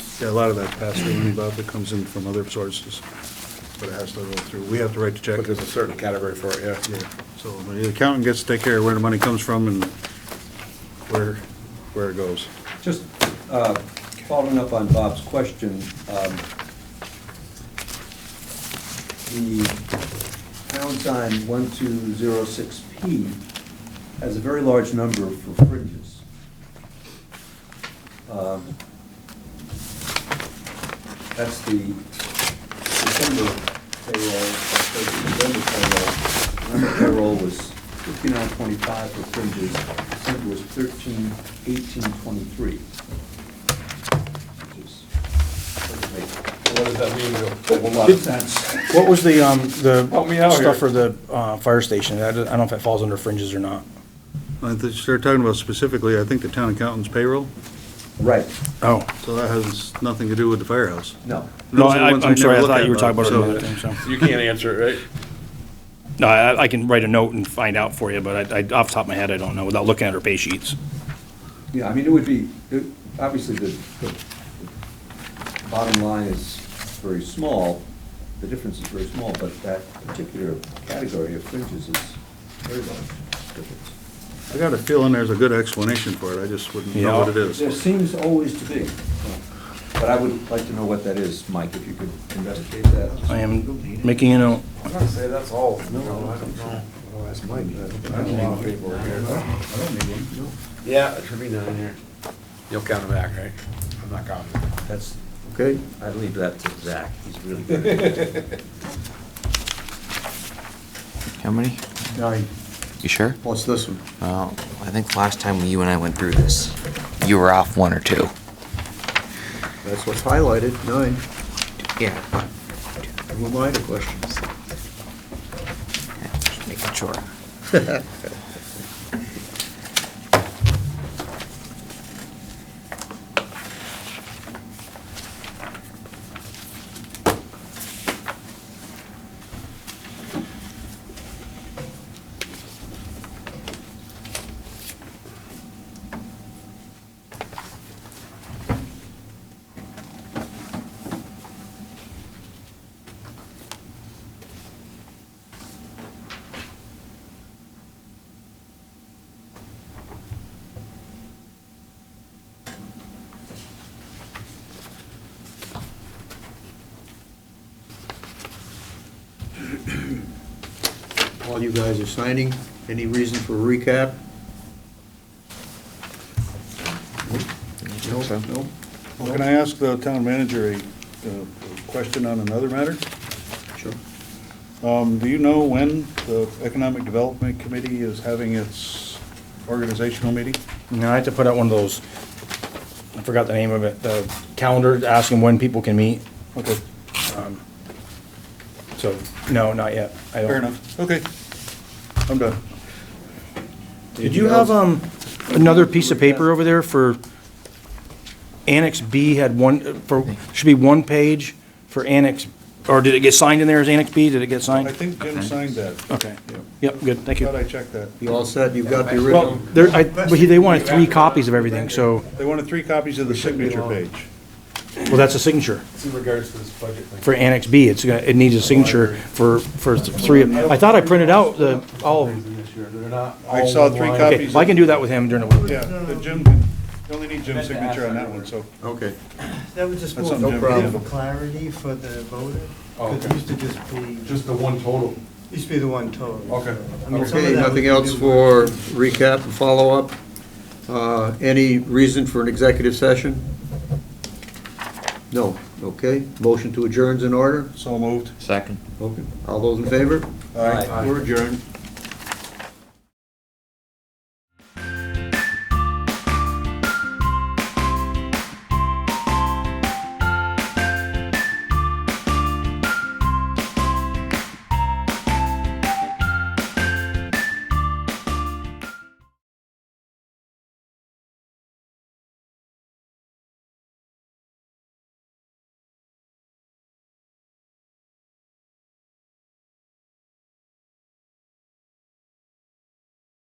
Yeah, a lot of that pass-through money, Bob, that comes in from other sources, but it has to roll through. We have to write the check. But there's a certain category for it, yeah. Yeah, so the accountant gets to take care of where the money comes from and where, where it goes. Just uh, following up on Bob's question, um, the pound sign 1206P has a very large number for fringes. Um, That's the December payroll, that's the November payroll. November payroll was 5925 for fringes, December was 131823. Which is, doesn't make What does that mean, a whole lot of sense. What was the, um, the Help me out here. stuff for the, uh, fire station? I don't I don't know if that falls under fringes or not. I think They're talking about specifically, I think, the town accountant's payroll, Right, Oh. so that has nothing to do with the firehouse. no. No, Those are the I, ones I'm sorry, I never look thought at, you were Bob, talking about so- another thing, so. You can't answer it, right? No, I, I can write a note and find out for you, but I, I, off the top of my head, I don't know, without looking at our pay sheets. Yeah, I mean, it would be, it- obviously, the the bottom line is very small, the difference is very small, but that particular category of fringes is very large difference. I got a feeling there's a good explanation for it, I just wouldn't know what it Yeah. There is. seems always to be, but I would like to know what that is, Mike, if you could investigate that. I am making a note. I'm not saying that's all. No, I don't know. Oh, that's mine. I don't want paperwork here. Yeah, it should be down here. You'll count them back, right? I'm not counting. That's, okay, I'd leave that to Zach, he's really good at it. How many? Nine. You sure? What's this one? Well, I think last time you and I went through this, you were off one or two. That's what's highlighted, nine. Yeah. Who am I to question? Just making sure. All you guys are signing. Any reason for recap? No, no. Well, Can I ask the town manager a uh, question on another matter? Sure. Um, Do you know when the Economic Development Committee is having its organizational meeting? No, I had to put out one of those, I forgot the name of it, the calendar, asking when people can meet. Okay, So, no, not yet. I don't- fair enough, okay, I'm done. Did you have, um, another piece of paper over there for Annex B had one, for, should be one page for Annex, or did it get signed in there as Annex B? Did it get I signed? think Jim signed that. Okay. Yep, good, thank Thought you. I checked that. You all set? You've got the Well, original? there, I, but he- they wanted three copies of everything, so, They wanted three copies of the signature page. well, that's a signature. It's in regards to this budget thing. For Annex B, it's, got- it needs a signature for, for three, of I thought I printed out the, all of, This year, They're not I all saw in three line. copies. okay, well, I can do that with him during the week. Yeah, the Jim, you only need Jim's signature on that one, so. Okay. That was just That's more something No problem. for clarity for the voter. Oh, okay. Because it used to just be, Just the one total. used to be the one total. Okay. I mean, some Okay, of that we nothing can else do. for recap and follow-up? Uh, Any reason for an executive session? No, okay. Motion to adjourn's in order? So moved. Second. Okay. All those in favor? All right. We're adjourned.